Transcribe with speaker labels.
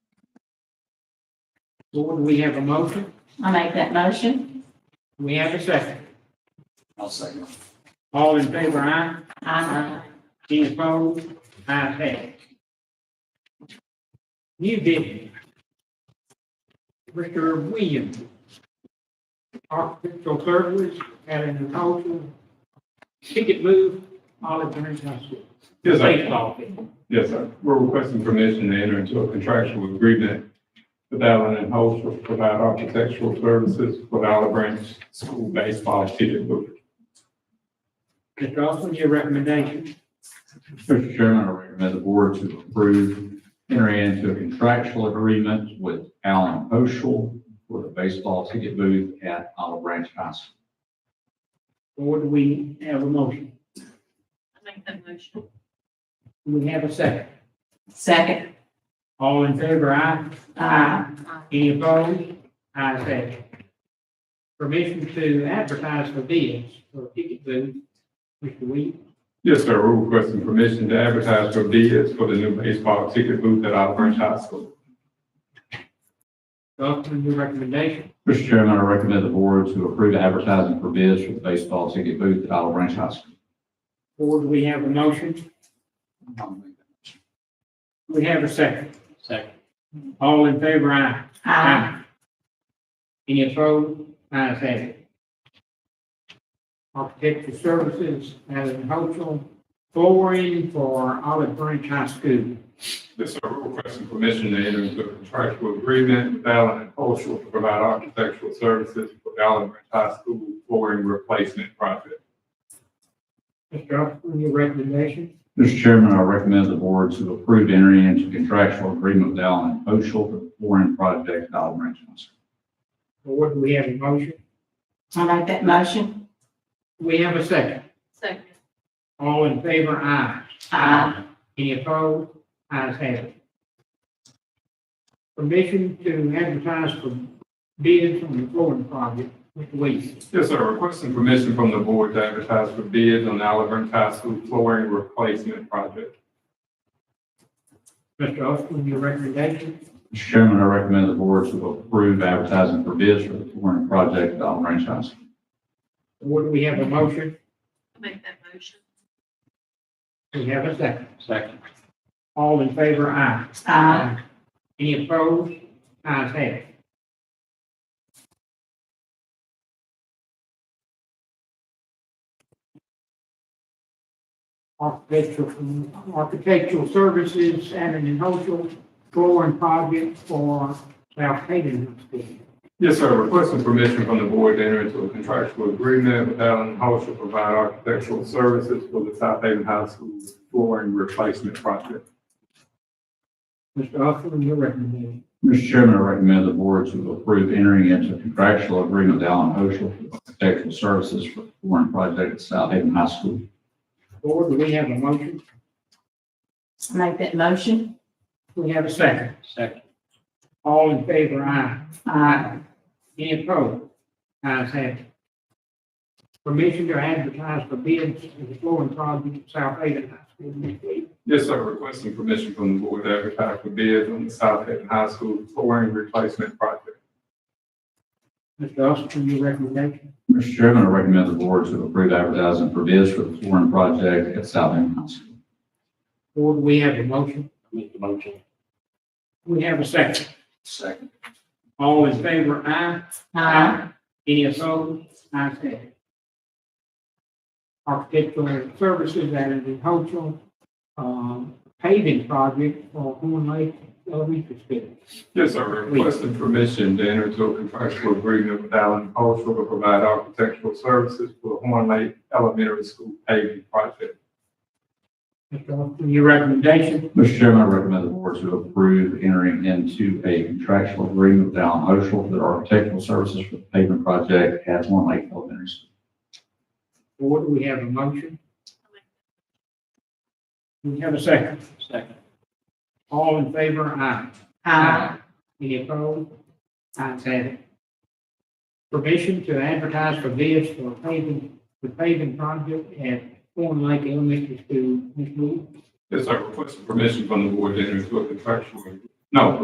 Speaker 1: Lord, we have a motion.
Speaker 2: I make that motion.
Speaker 1: We have a second.
Speaker 3: I'll second.
Speaker 1: All in favor, aye.
Speaker 2: I,
Speaker 1: Any opposed? Ayes have it. New business. Mr. Williams. Architectural services, Allen Cultural. Ticket move, Olive Branch Hospital.
Speaker 4: Yes, sir.
Speaker 1: Baseball field.
Speaker 4: Yes, sir. We're requesting permission to enter into a contractual agreement with Allen and Holt to provide architectural services for the Olive Branch School Baseball Ticket Booth.
Speaker 1: Mr. Austin, your recommendation.
Speaker 5: Mr. Chairman, I recommend the board to approve entering into a contractual agreement with Alan Oshel for the baseball ticket booth at Olive Branch High School.
Speaker 1: Lord, we have a motion.
Speaker 2: I make that motion.
Speaker 1: We have a second.
Speaker 2: Second.
Speaker 1: All in favor, aye.
Speaker 2: Aye.
Speaker 1: Any opposed? Ayes have it. Permission to advertise for bids for ticket booth. Mr. Williams.
Speaker 4: Yes, sir. We're requesting permission to advertise for bids for the new baseball ticket booth at Olive Branch High School.
Speaker 1: Upon your recommendation,
Speaker 5: Mr. Chairman, I recommend the board to approve advertising for bids for the baseball ticket booth at Olive Branch High School.
Speaker 1: board, we have a motion. We have a second.
Speaker 3: Second.
Speaker 1: All in favor, aye.
Speaker 2: Aye.
Speaker 1: Any opposed? Ayes have it. Architectural Services, Allen Hochul, flooring for Olive Branch High School.
Speaker 4: Yes, sir. We're requesting permission to enter into a contractual agreement with Allen and Holt to provide architectural services for the Olive Branch High School flooring replacement project.
Speaker 1: Mr. Upson, your recommendation,
Speaker 5: Mr. Chairman, I recommend the board to approve entering into contractual agreement with Alan Oshel for the flooring project at Olive Branch High School.
Speaker 1: board, we have a motion.
Speaker 2: I make that motion.
Speaker 1: We have a second.
Speaker 2: Second.
Speaker 1: All in favor, aye.
Speaker 2: Aye.
Speaker 1: Any opposed? Ayes have it. Permission to advertise for bids on the flooring project, Mr. Williams.
Speaker 4: Yes, sir. Requesting permission from the board to advertise for bids on the Olive Branch High School flooring replacement project.
Speaker 1: Mr. Austin, your recommendation,
Speaker 5: Mr. Chairman, I recommend the board to approve advertising for bids for the flooring project at Olive Branch High School.
Speaker 1: Would we have a motion?
Speaker 2: Make that motion.
Speaker 1: We have a second.
Speaker 3: Second.
Speaker 1: All in favor, aye.
Speaker 2: Aye.
Speaker 1: Any opposed? Ayes have it. Architectural, architectural services, Allen and Hochul, flooring project for South Hayden.
Speaker 4: Yes, sir. Requesting permission from the board to enter into a contractual agreement with Allen Holt to provide architectural services for the South Haven High School flooring replacement project.
Speaker 1: Mr. Austin, your recommendation.
Speaker 5: Mr. Chairman, I recommend the board to approve entering into contractual agreement with Allen Oshel for architectural services for the flooring project at South Haven High School.
Speaker 1: Board, do we have a motion?
Speaker 2: I make that motion.
Speaker 1: We have a second.
Speaker 3: Second.
Speaker 1: All in favor, aye.
Speaker 2: Aye.
Speaker 1: Any opposed? Ayes have it. Permission to advertise for bids in the flooring project at South Haven High School next week.
Speaker 4: Yes, sir. Requesting permission from the board to advertise for bids on the South Haven High School flooring replacement project.
Speaker 1: Mr. Austin, your recommendation.
Speaker 5: Mr. Chairman, I recommend the board to approve advertising for bids for the flooring project at South Haven High School.
Speaker 1: Board, we have a motion.
Speaker 3: Make the motion.
Speaker 1: We have a second.
Speaker 3: Second.
Speaker 1: All in favor, aye.
Speaker 2: Aye.
Speaker 1: Any opposed? Ayes have it. Architectural services added in Hochul, um, paving project for Horn Lake uh, Elementary School.
Speaker 4: Yes, sir. Requesting permission to enter into a contractual agreement with Allen Cultural to provide architectural services for the Horn Lake Elementary School paving project.
Speaker 1: Mr. Austin, your recommendation.
Speaker 5: Mr. Chairman, I recommend the board to approve entering into a contractual agreement with Allen Oshel for the architectural services for the pavement project at One Lake Elementary School.
Speaker 1: Board, we have a motion. We have a second.
Speaker 3: Second.
Speaker 1: All in favor, aye.
Speaker 2: Aye.
Speaker 1: Any opposed? Ayes have it. Permission to advertise for bids for paving, the paving project at Horn Lake Elementary School, Ms. Moore.
Speaker 4: Yes, sir. Requesting permission from the board to enter into a contractual, no,